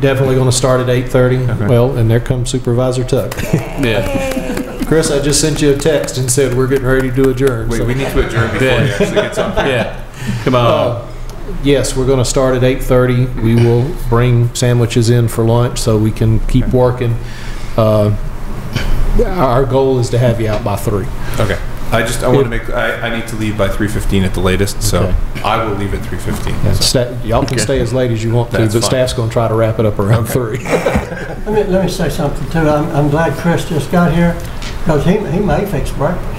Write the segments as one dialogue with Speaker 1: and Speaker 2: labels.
Speaker 1: Definitely going to start at 8:30.
Speaker 2: Okay.
Speaker 1: Well, and there comes Supervisor Tuck.
Speaker 2: Yeah.
Speaker 1: Chris, I just sent you a text and said we're getting ready to adjourn.
Speaker 3: Wait,
Speaker 1: so-
Speaker 3: we need to adjourn before
Speaker 2: Yeah.
Speaker 3: he actually gets Oh. up there.
Speaker 2: Yeah. Come on.
Speaker 1: Uh, Yes, we're going to start at 8:30. We will bring sandwiches in for lunch so we can keep working. Uh, Our goal is to have you out by three.
Speaker 3: Okay. I just, I want to make, I, I need to leave by 3:15 at the latest, so I will leave at 3:15. so.
Speaker 1: Sta- Y'all can
Speaker 2: Okay.
Speaker 1: stay as late as you want to,
Speaker 3: That's
Speaker 1: but
Speaker 3: fine.
Speaker 1: staff's going to try to wrap it up around three.
Speaker 4: Let me, let me say something too. I'm, I'm glad Chris just got here because he, he may fix breakfast.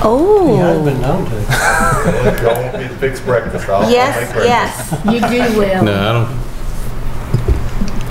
Speaker 4: He has
Speaker 5: Oh,
Speaker 4: been known to.
Speaker 6: Y'all want me to fix breakfast? I'll I'll make
Speaker 5: yes,
Speaker 6: breakfast.
Speaker 5: yes.
Speaker 7: You do well.
Speaker 2: No, I don't.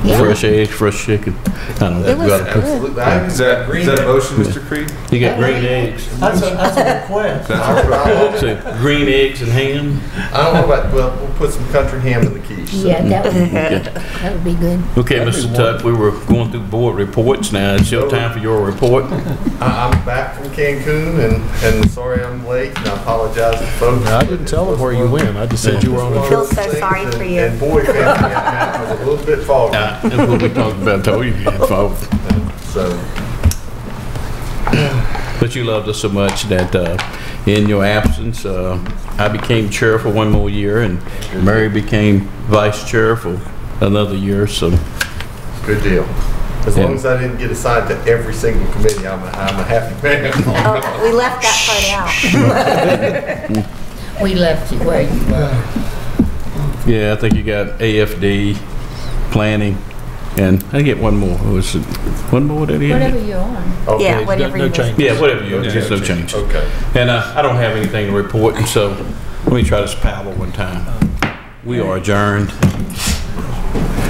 Speaker 5: Yeah.
Speaker 2: Fresh eggs, fresh chicken. I don't know.
Speaker 5: It was
Speaker 2: Gotta-
Speaker 5: good.
Speaker 6: Absolutely. I
Speaker 3: Is that, is that a motion, Mr. Creed?
Speaker 2: You got green eggs.
Speaker 4: That's a, that's a request.
Speaker 3: That's what
Speaker 2: So green eggs and ham.
Speaker 6: I don't know about, well, we'll put some country ham in the quiche. so.
Speaker 7: Yeah, that would,
Speaker 2: Okay,
Speaker 7: that would be good.
Speaker 2: Okay, Mr. Tuck, we were going through board reports now. It's your time for your report.
Speaker 6: I- I'm back from Cancun and, and sorry I'm late and I apologize to folks.
Speaker 1: I didn't tell them where you went. I just said you were on a
Speaker 6: One of
Speaker 5: Feel
Speaker 6: those
Speaker 5: so
Speaker 6: things,
Speaker 5: sorry for
Speaker 6: and-
Speaker 5: you.
Speaker 6: And boy, family that night was a little bit foggy,
Speaker 2: Uh, That's what we talked about. Told you you had folks.
Speaker 6: so.
Speaker 2: But you loved us so much that uh, in your absence, uh, I became chair for one more year, and Mary became vice chair for another year. So
Speaker 6: Good deal. As long
Speaker 2: Yeah.
Speaker 6: as I didn't get assigned to every single committee, I'm a, I'm a happy man.
Speaker 5: Oh, we left that part out.
Speaker 7: We left you where you were.
Speaker 2: yeah, I think you got AFD, planning, and I get one more. Was it one more that he
Speaker 7: Whatever
Speaker 2: had?
Speaker 7: you're on.
Speaker 6: Okay.
Speaker 5: Yeah, whatever
Speaker 1: no
Speaker 5: you
Speaker 1: change.
Speaker 2: Yeah, whatever you.
Speaker 3: Yeah,
Speaker 2: just no
Speaker 3: no
Speaker 2: change.
Speaker 6: Okay.
Speaker 2: And uh, I don't have anything to report, so let me try this paddle one time. We are adjourned.